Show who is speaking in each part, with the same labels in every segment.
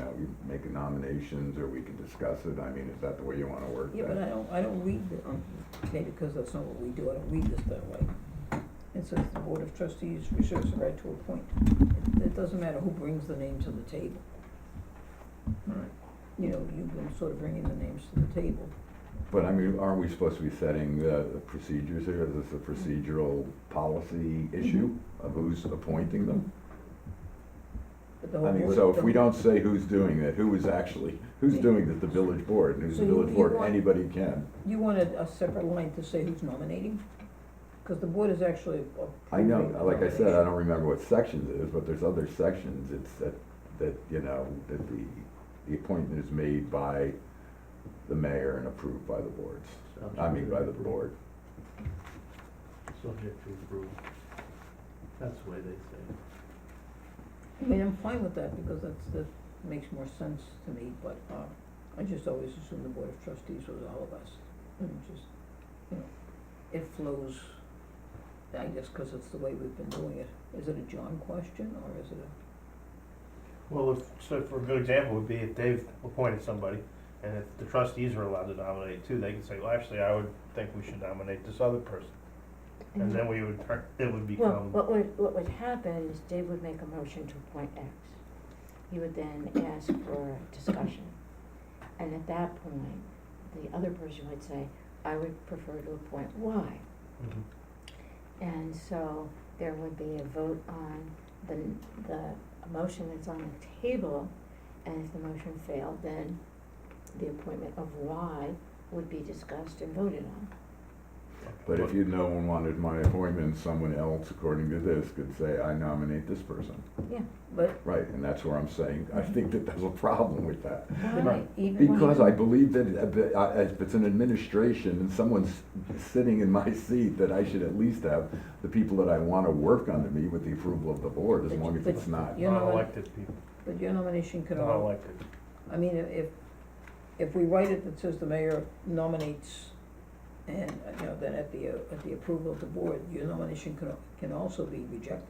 Speaker 1: uh, nominations, or we can discuss it, I mean, is that the way you wanna work that?
Speaker 2: Yeah, but I don't, I don't read, the- um, maybe because that's not what we do, I don't read this that way. It says the Board of Trustees reserves the right to appoint. It- It doesn't matter who brings the name to the table.
Speaker 1: Right.
Speaker 2: You know, you've been sort of bringing the names to the table.
Speaker 1: But I mean, aren't we supposed to be setting the the procedures here, is this a procedural policy
Speaker 2: Mm-hmm.
Speaker 1: issue of who's appointing them?
Speaker 2: But the
Speaker 1: I
Speaker 2: whole
Speaker 1: mean,
Speaker 2: board-
Speaker 1: so if
Speaker 2: Oh, the-
Speaker 1: we don't say who's doing it, who is actually, who's doing this, the village board, and who's the
Speaker 2: So you-
Speaker 1: village
Speaker 2: you
Speaker 1: board,
Speaker 2: want-
Speaker 1: anybody can.
Speaker 2: You wanted a separate line to say who's nominating? Because the board is actually approving
Speaker 1: I know, like I said, I
Speaker 2: nomination.
Speaker 1: don't remember what sections it is, but there's other sections, it's that, that, you know, that the, the appointment is made by the mayor and approved by the boards, I mean, by the board.
Speaker 3: Subject to approval. That's the way they say
Speaker 2: I mean, I'm fine with that because that's, that makes more sense to me, but, uh, I just always assumed the Board of Trustees was all of us. And it just, you know, it flows, I guess, cause it's the way we've been doing it. Is it a John question or is it a,
Speaker 3: it. Well, if, so for a good example would be if they've appointed somebody, and if the trustees are allowed to nominate too, they can say, well, actually, I would think we should nominate this other person. And then we would, turn- it would
Speaker 4: Mm-hmm. Well,
Speaker 3: become,
Speaker 4: what would, what would happen is Dave would make a motion to appoint X. He would then ask for discussion. And at that point, the other person would say, I would prefer to appoint Y.
Speaker 3: Mhm.
Speaker 4: And so there would be a vote on the, the motion that's on the table. And if the motion failed, then the appointment of Y would be discussed and voted on.
Speaker 1: But if you, no one wanted my appointment, someone else, according to this, could say, I nominate this person.
Speaker 2: but
Speaker 1: Right, and that's where I'm saying, I think that there's a problem with that.
Speaker 4: Why, even when.
Speaker 1: Because I believe that uh, uh, if it's an administration and someone's sitting in my seat, that I should at least have the people that I want to work under me with the approval of the board, as
Speaker 2: But-
Speaker 1: long as
Speaker 2: but-
Speaker 1: it's not.
Speaker 2: you know, what-
Speaker 3: Non-elected people,
Speaker 2: but your nomination could all,
Speaker 3: non-elected.
Speaker 2: I mean, i- if, if we write it that says the mayor nominates and, uh, you know, then at the, uh, at the approval of the board, your nomination can, al- can also be rejected.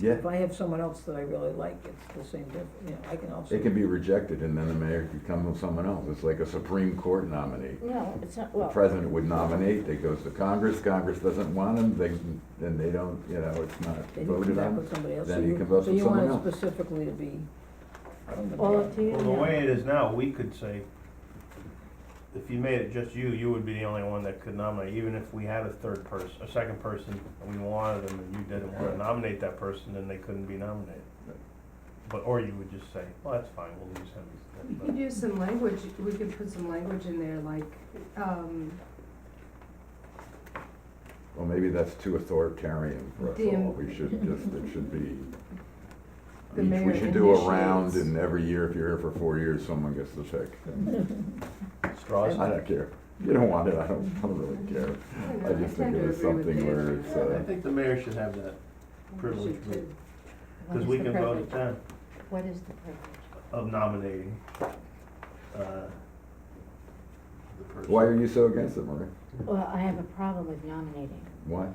Speaker 1: Yeah,
Speaker 2: If I have someone else that I really like, it's the same diff, you know, I can also.
Speaker 1: it can be rejected and then the mayor could come with someone else. It's like a Supreme Court nominee.
Speaker 4: No, it's not,
Speaker 1: The
Speaker 4: well,
Speaker 1: president would nominate, they goes to Congress, Congress doesn't want him, they, then they don't, you know, it's not
Speaker 2: Then you come
Speaker 1: voted
Speaker 2: back
Speaker 1: on.
Speaker 2: with somebody else.
Speaker 1: then
Speaker 2: So
Speaker 1: you can vote for someone
Speaker 2: So you want it
Speaker 1: else.
Speaker 2: specifically to be from the
Speaker 4: all
Speaker 2: board.
Speaker 4: up to you
Speaker 3: Well, the
Speaker 4: now.
Speaker 3: way it is now, we could say, if you made it just you, you would be the only one that could nominate, even if we had a third person, a second person, and we wanted them, and you didn't wanna
Speaker 1: Right.
Speaker 3: nominate that person, then they couldn't be nominated.
Speaker 1: Right.
Speaker 3: But, or you would just say, well, that's fine, we'll use him.
Speaker 5: We
Speaker 3: instead."
Speaker 5: could use some language, we could put some language in there like, um,
Speaker 1: Well, maybe that's too authoritarian for us all.
Speaker 5: Damn.
Speaker 1: We should just, it should be,
Speaker 5: The
Speaker 1: each-
Speaker 5: mayor
Speaker 1: we should do a round
Speaker 5: initiates.
Speaker 1: and every year, if you're here for four years, someone gets the pick.
Speaker 3: But Straws,
Speaker 1: I don't care. You don't want it, I don't, I don't really care.
Speaker 5: I don't
Speaker 1: I
Speaker 5: know, I
Speaker 1: just think
Speaker 5: tend
Speaker 1: it was
Speaker 5: to agree with
Speaker 1: something
Speaker 5: Dave
Speaker 1: where
Speaker 5: on
Speaker 1: it's,
Speaker 5: that.
Speaker 1: uh,
Speaker 3: I think the mayor should have that privilege,
Speaker 5: Should too.
Speaker 4: What
Speaker 3: because
Speaker 4: is
Speaker 3: we
Speaker 4: the
Speaker 3: can vote at
Speaker 4: privilege?
Speaker 3: time
Speaker 4: What is the privilege?
Speaker 3: of nominating, uh, the person.
Speaker 1: Why are you so against it, Maria?
Speaker 4: Well, I have a problem with nominating.
Speaker 1: Why?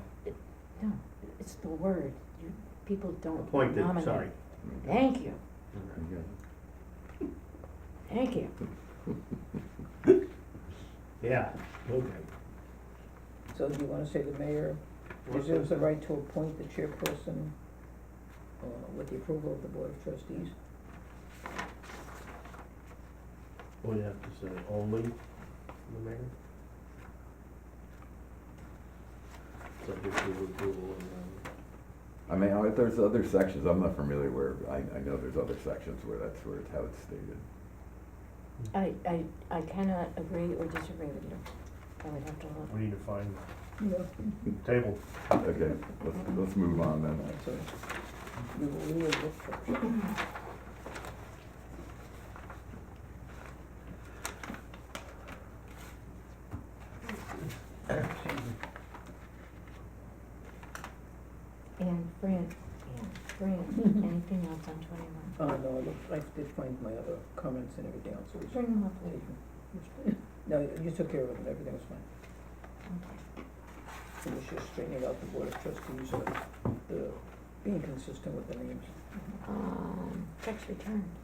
Speaker 4: No, it's the word. You, people don't nominate.
Speaker 3: Appointed, sorry.
Speaker 4: Thank you,
Speaker 1: Okay.
Speaker 4: thank you.
Speaker 3: Yeah, okay.
Speaker 2: So do you wanna say the mayor
Speaker 3: What's
Speaker 2: reserves
Speaker 3: that?
Speaker 2: the right to appoint the chairperson, uh, with the approval of the board of trustees?
Speaker 3: Would Oh, have to say only the mayor? Subject to approval and,
Speaker 1: I mean, I- there's other sections, I'm not familiar where, I, I know there's other sections where that's where, it's how it's stated.
Speaker 4: I, I, I cannot agree or disagree with you. I would have to look.
Speaker 3: um, we need to find
Speaker 2: Yeah.
Speaker 3: a table.
Speaker 1: Okay, let's, let's move on then.
Speaker 2: Alright, so we will, we will look for,
Speaker 4: And Fran, Fran, anything else on twenty-one?
Speaker 2: oh, no, I looked, I did find my other comments and everything else, so we
Speaker 4: Bring
Speaker 2: should.
Speaker 4: them up later.
Speaker 2: No, you- you took care of it, everything was fine,
Speaker 4: Okay.
Speaker 2: so we should straighten it out the board of trustees, uh, the, being consistent with the names.
Speaker 4: Um, checks returned.